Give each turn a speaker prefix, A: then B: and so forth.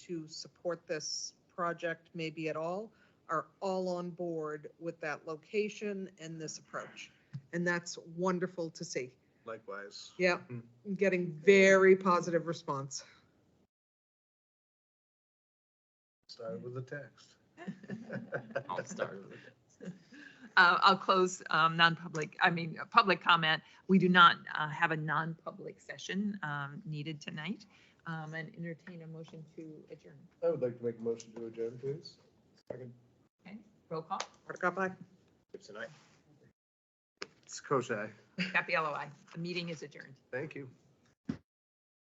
A: to support this project maybe at all are all on board with that location and this approach. And that's wonderful to see.
B: Likewise.
A: Yeah, I'm getting very positive response.
B: Started with the text.
C: I'll start Uh, I'll close um, non-public, I mean, uh, public comment. We do not uh, have a non-public session um, needed tonight. um, And entertain a motion to adjourn.
B: I would like to make a motion to adjourn, please. Second.
C: Okay, roll call.
A: Hardikoff, aye.
B: It's Koshai.
C: Capello, aye. The meeting is adjourned.
B: Thank you.